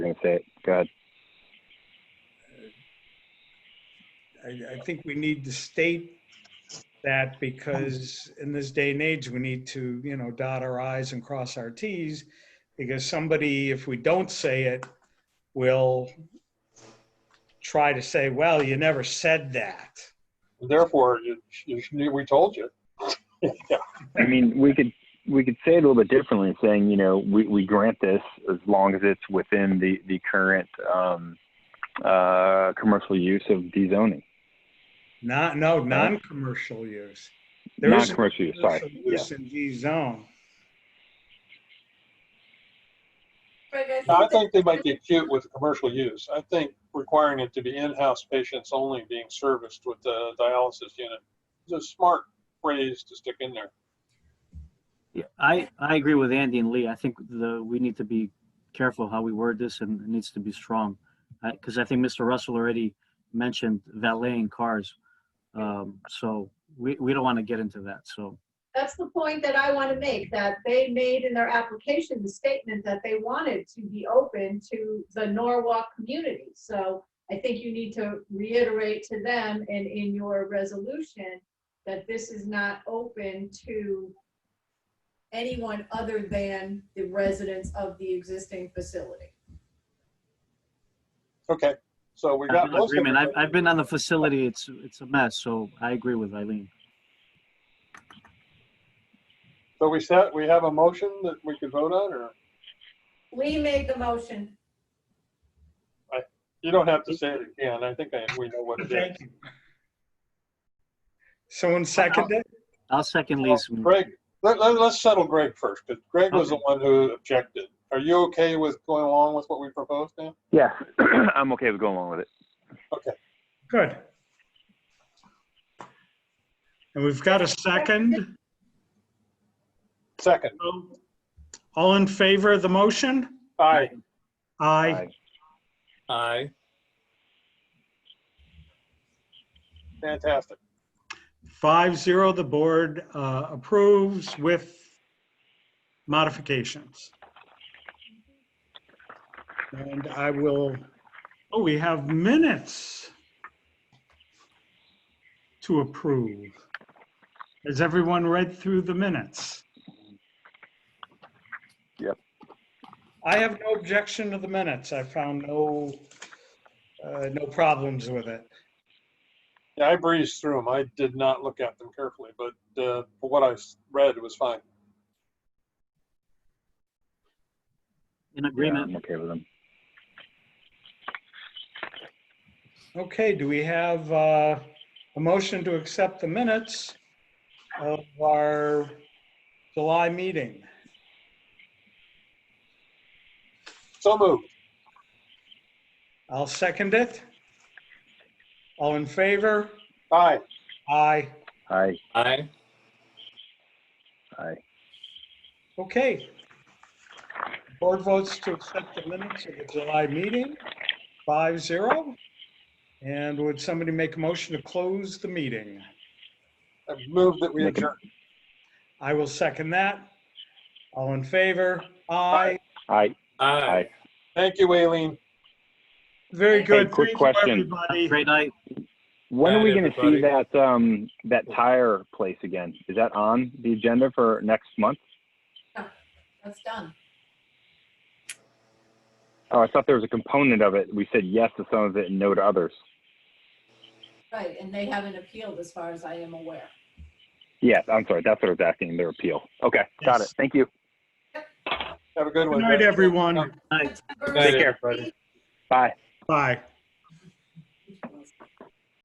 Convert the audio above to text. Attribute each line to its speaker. Speaker 1: going to say it. Go ahead.
Speaker 2: I, I think we need to state that because in this day and age, we need to, you know, dot our i's and cross our t's. Because somebody, if we don't say it, will try to say, well, you never said that.
Speaker 3: Therefore, you, you, knew we told you.
Speaker 1: I mean, we could we could say it a little bit differently, saying you know we, we grant this as long as it's within the the current um, uh, commercial use of dezoning,
Speaker 2: Not, no, non-commercial use. There is a
Speaker 1: non-commercial use. Sorry,
Speaker 2: commercial
Speaker 1: yeah.
Speaker 2: Use in G zone.
Speaker 4: But
Speaker 3: Now, I
Speaker 4: that-
Speaker 3: think they might get cute with the commercial use. I think requiring it to be in-house patients only being serviced with the dialysis unit is a smart phrase to stick in there.
Speaker 5: Yeah, I, I agree with Andy and Lee. I think the, we need to be careful how we word this and it needs to be strong. Because I think Mr. Russell already mentioned valeting cars. Um, so we, we don't want to get into that, so.
Speaker 4: That's the point that I want to make, that they made in their application the statement that they wanted to be open to the Norwalk community. So I think you need to reiterate to them and in your resolution that this is not open to anyone other than the residents of the existing facility.
Speaker 3: Okay, so we got
Speaker 5: I'm in
Speaker 3: most of
Speaker 5: agreement. I've,
Speaker 3: it.
Speaker 5: I've been on the facility, it's, it's a mess, so I agree with Eileen.
Speaker 3: So we set, we have a motion that we could vote on, or
Speaker 4: Lee made the motion.
Speaker 3: you don't have to say it again. I think I, we know what it is.
Speaker 2: Thank you. Someone seconded?
Speaker 5: I'll second
Speaker 3: Well,
Speaker 5: Lee's. move.
Speaker 3: Greg, let, let, let's settle Greg first, because Greg was the one who objected. Are you okay with going along with what we proposed now?
Speaker 1: yeah, I'm okay with going along with it.
Speaker 2: Good. And we've got a second.
Speaker 3: Second,
Speaker 2: All in favor of the motion?
Speaker 3: aye.
Speaker 2: Aye.
Speaker 3: Aye. Fantastic.
Speaker 2: Five zero, the board uh, approves with modifications. And I will, oh, we have minutes to approve. Has everyone read through the minutes?
Speaker 1: Yep.
Speaker 2: I have no objection to the minutes. I found no, uh, no problems with it.
Speaker 3: Yeah, I breezed through them. I did not look at them carefully, but uh, for what I s- read, it was fine.
Speaker 5: In
Speaker 1: Yeah,
Speaker 5: agreement.
Speaker 1: I'm okay with them.
Speaker 2: Okay, do we have uh, a motion to accept the minutes of our July meeting?
Speaker 3: So moved.
Speaker 2: I'll second it. All in favor?
Speaker 3: Aye.
Speaker 2: Aye.
Speaker 1: Aye.
Speaker 3: Aye.
Speaker 1: Aye.
Speaker 2: Okay. Board votes to accept the minutes of the July meeting, five zero. And would somebody make a motion to close the meeting?
Speaker 3: I moved that we
Speaker 1: Make a-
Speaker 3: adjourn.
Speaker 2: I will second that. All in favor? Aye.
Speaker 1: Aye. Aye.
Speaker 3: Thank you, Aileen.
Speaker 2: Very good.
Speaker 1: Hey, quick
Speaker 2: Thank you,
Speaker 1: question.
Speaker 2: everybody.
Speaker 5: Great night.
Speaker 1: When are
Speaker 3: Aye,
Speaker 1: we going to see
Speaker 3: everybody.
Speaker 1: that um that tire place again? Is that on the agenda for next month?
Speaker 4: That's done.
Speaker 1: Oh, I thought there was a component of it. We said yes to some of it and no to others.
Speaker 4: Right, and they haven't appealed as far as I am aware.
Speaker 1: Yes, I'm sorry. That's what I was asking. Their appeal. Okay, got it.
Speaker 2: Yes.
Speaker 1: Thank you.
Speaker 3: Have a good one.
Speaker 2: Good night, everyone.
Speaker 5: Night.
Speaker 1: Take care. Bye.
Speaker 2: Bye.